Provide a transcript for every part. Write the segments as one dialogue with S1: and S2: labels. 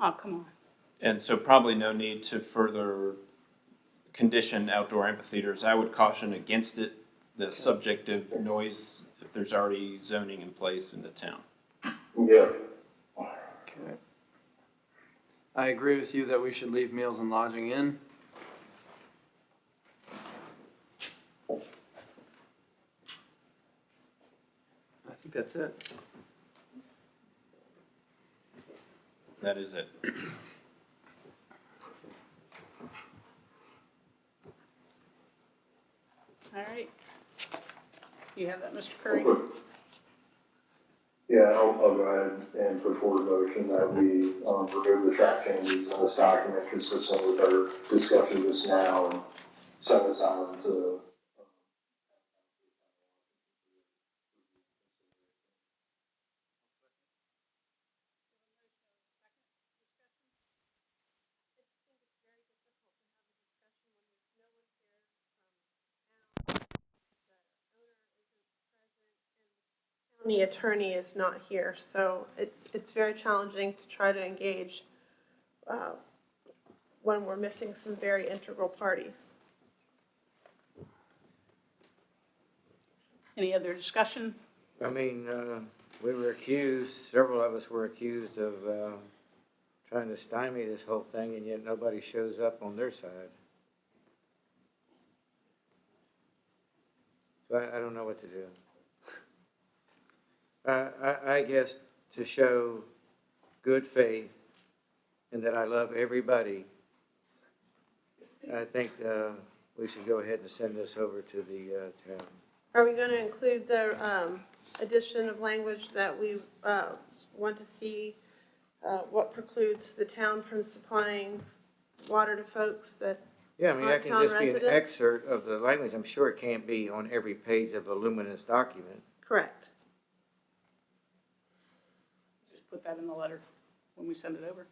S1: Oh, come on.
S2: And so probably no need to further condition outdoor amphitheaters. I would caution against it, the subjective noise, if there's already zoning in place in the town.
S3: Yeah.
S4: Okay. I agree with you that we should leave meals and lodging in. I think that's it.
S2: That is it.
S1: All right. You have that, Mr. Curry?
S3: Yeah, I'll, I'll go ahead and put forward a motion that we, um, remove the track changes in this document consistent with our discussion just now and send this out to.
S5: county attorney is not here, so it's, it's very challenging to try to engage uh, when we're missing some very integral parties.
S1: Any other discussion?
S6: I mean, uh, we were accused, several of us were accused of, um, trying to stymie this whole thing and yet nobody shows up on their side. So I, I don't know what to do. I, I, I guess to show good faith and that I love everybody, I think, uh, we should go ahead and send this over to the, uh, town.
S5: Are we going to include the um, addition of language that we uh, want to see uh, what precludes the town from supplying water to folks that,
S6: Yeah, I mean, that can
S5: Hometown
S6: just be an
S5: residents?
S6: excerpt of the language. I'm sure it can't be on every page of a luminous document.
S5: correct?
S1: Just put that in the letter when we send it over.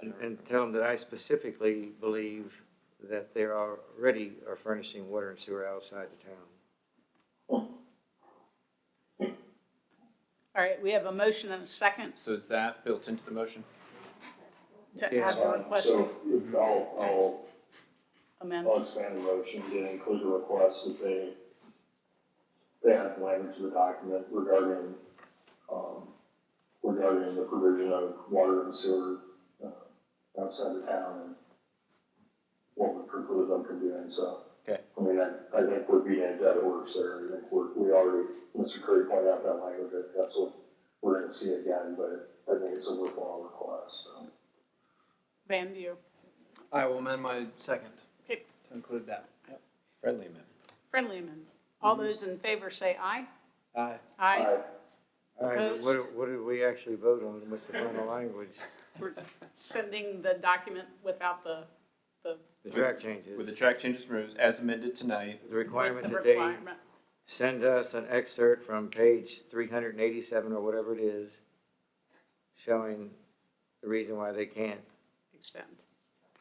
S6: and- And tell them that I specifically believe that they are already are furnishing water and sewer outside the town.
S1: All right, we have a motion and a second
S2: So is that built into the motion?
S1: to
S6: Yes.
S1: have your request
S3: So uh, I'll, I'll,
S1: amended.
S3: I'll expand the motion to include a request that they, they add language to the document regarding, um, regarding the provision of water and sewer uh, outside the town and what would preclude them from doing so.
S2: Okay.
S3: I mean, I, I think we're being a dead horse there. I think we're, we already, Mr. Curry pointed out that language, I think that's what we're gonna see again, but I think it's a worthwhile request, so.
S1: Van, do you,
S4: I will amend my second
S1: okay,
S4: to include that.
S2: Friendly amendment.
S1: friendly amendment. All those in favor say aye.
S4: Aye.
S1: Aye.
S6: All right, but what,
S1: Opposed?
S6: what did we actually vote on? What's the final language?
S1: We're sending the document without the, the,
S6: The track
S2: With the
S6: changes.
S2: track changes removed as amended tonight,
S6: The
S1: with the
S6: requirement that they
S1: requirement.
S6: send us an excerpt from page three hundred and eighty-seven or whatever it is, showing the reason why they can't
S1: Extend.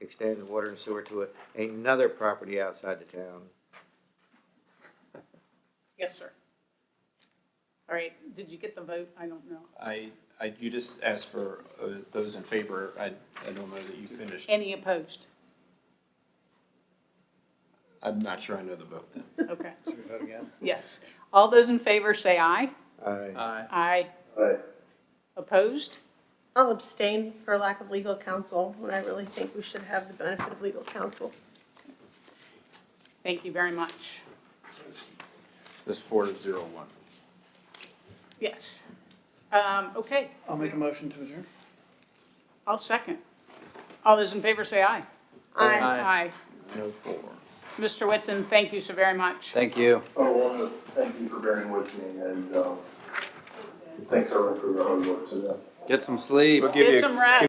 S6: extend the water and sewer to a- another property outside the town.
S1: Yes, sir. All right, did you get the vote? I don't know.
S2: I, I, you just asked for uh, those in favor. I, I don't know that you finished.
S1: Any opposed?
S2: I'm not sure I know the vote then.
S1: Okay,
S4: Should we vote again?
S1: yes. All those in favor say aye.
S6: Aye.
S4: Aye.
S1: Aye.
S3: Aye.
S1: Opposed?
S5: I'll abstain for lack of legal counsel, when I really think we should have the benefit of legal counsel.
S1: Thank you very much.
S2: This four to zero one.
S1: Yes. Um, okay,
S4: I'll make a motion to adjourn.
S1: I'll second. All those in favor say aye.
S5: Aye.
S1: Aye.
S2: No four.
S1: Mr. Whitson, thank you so very much.
S4: Thank you.
S3: Oh, well, thank you for bearing with me and, um, thanks everyone for the hard work today.
S4: Get some sleep.
S1: Get some rest.